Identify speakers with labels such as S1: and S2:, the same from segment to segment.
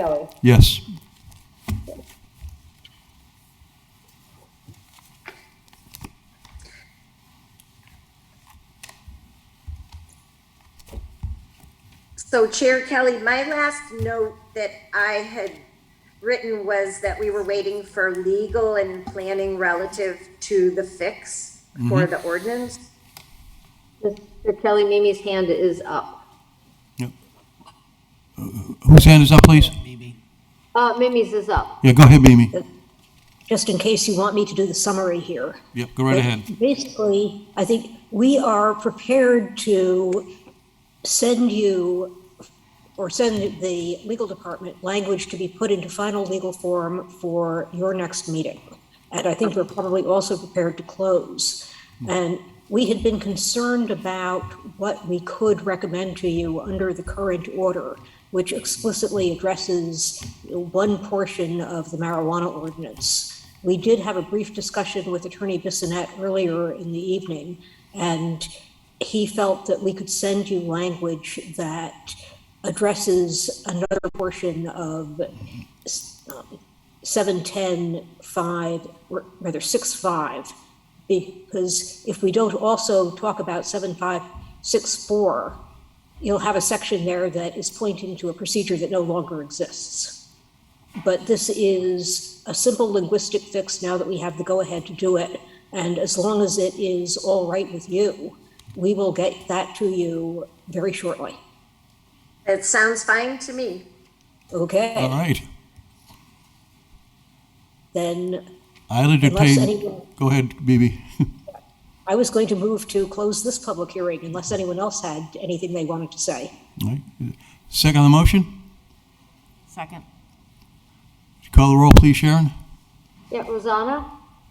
S1: Kelly.
S2: Yes.
S3: So Chair Kelly, my last note that I had written was that we were waiting for legal and planning relative to the fix for the ordinance.
S1: Mr. Kelly, Mimi's hand is up.
S2: Yep. Uh, Whose hand is up, please?
S1: Uh, Mimi's is up.
S2: Yeah, go ahead, Mimi.
S4: just in case you want me to do the summary here.
S2: Yep, go right ahead.
S4: Basically, I think we are prepared to send you or send the legal department language to be put into final legal form for your next meeting. And I think we're probably also prepared to close. And we had been concerned about what we could recommend to you under the current order, which explicitly addresses one portion of the marijuana ordinance. We did have a brief discussion with Attorney Bissonette earlier in the evening, and he felt that we could send you language that addresses another portion of um, seven ten five, or rather six five, because if we don't also talk about seven five six four, you'll have a section there that is pointing to a procedure that no longer exists. But this is a simple linguistic fix now that we have the go-ahead to do it. And as long as it is all right with you, we will get that to you very shortly.
S3: That sounds fine to me.
S2: All
S4: Okay,
S2: right.
S4: then
S2: I'll
S4: unless
S2: entertain,
S4: anyone,
S2: go ahead, Mimi.
S4: I was going to move to close this public hearing unless anyone else had anything they wanted to say.
S2: All right. Second on the motion? Would
S5: Second.
S2: you Call the roll, please, Sharon?
S1: Yeah, Rosanna,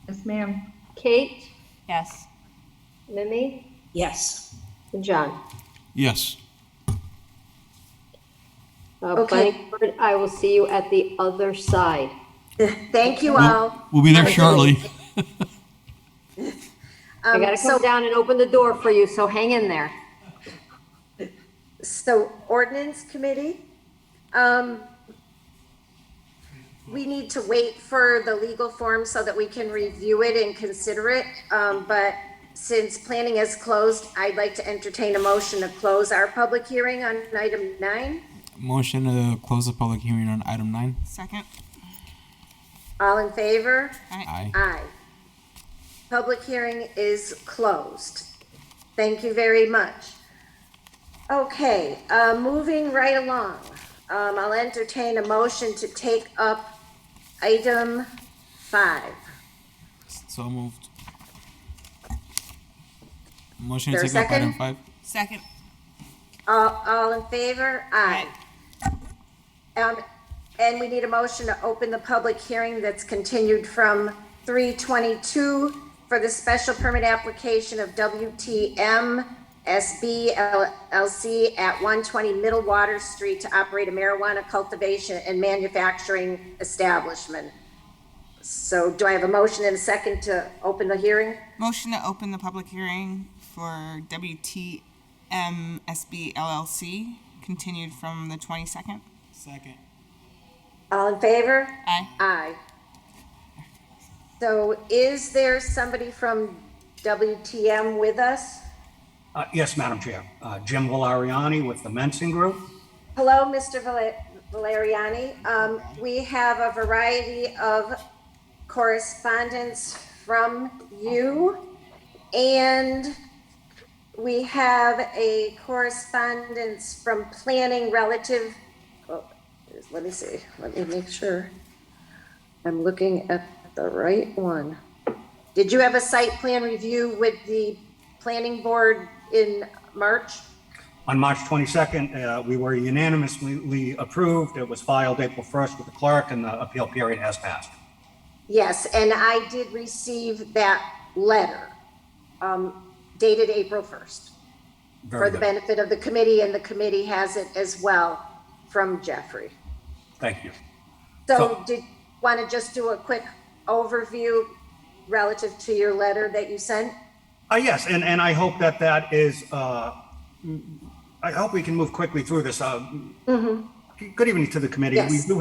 S5: Yes, ma'am.
S1: Kate,
S5: Yes.
S1: Mimi,
S4: Yes,
S1: and John.
S2: Yes.
S1: Uh,
S3: Okay.
S1: planning board, I will see you at the other side.
S3: Thank you
S1: Mm-hmm.
S3: all.
S2: We'll be there shortly.
S1: I
S3: Um,
S1: gotta
S3: so,
S1: come down and open the door for you, so hang in there.
S3: so ordinance committee, um, we need to wait for the legal form so that we can review it and consider it. Um, but since planning is closed, I'd like to entertain a motion to close our public hearing on item nine.
S6: Motion to close the public hearing on item nine.
S5: Second.
S3: All in favor?
S6: Aye.
S3: Aye. Public hearing is closed. Thank you very much. Okay, uh, moving right along, um, I'll entertain a motion to take up item five.
S6: So moved. Motion to
S3: There a
S6: take up item
S3: second?
S6: five.
S5: Second.
S3: All, all in favor? Aye. Um, and we need a motion to open the public hearing that's continued from three twenty-two for the special permit application of WTM SB LLC at one twenty Middle Water Street to operate a marijuana cultivation and manufacturing establishment. So do I have a motion and a second to open the hearing?
S7: Motion to open the public hearing for WTMSB LLC, continued from the 22nd.
S6: Second.
S3: All in favor?
S7: Aye.
S3: Aye. So is there somebody from WTM with us?
S8: Uh, Yes, Madam Chair. Uh, Jim Valeriani with the Mensing Group.
S3: Hello, Mr. Val- Valeriani. Um, we have a variety of correspondence from you. And we have a correspondence from planning relative, oh, let me see, let me make sure. I'm looking at the right one. Did you have a site plan review with the planning board in March?
S8: On March 22nd, uh, we were unanimously approved. It was filed April 1st with the clerk, and the appeal period has passed.
S3: Yes, and I did receive that letter um, dated April 1st for
S8: Very
S3: the
S8: good.
S3: benefit of the committee, and the committee has it as well from Jeffrey.
S8: Thank you.
S3: So
S8: So-
S3: did, want to just do a quick overview relative to your letter that you sent?
S8: Uh, Yes, and and I hope that that is, uh, I hope we can move quickly through this. Uh, Good evening to the committee.
S3: Mm-hmm. Yes.
S8: We do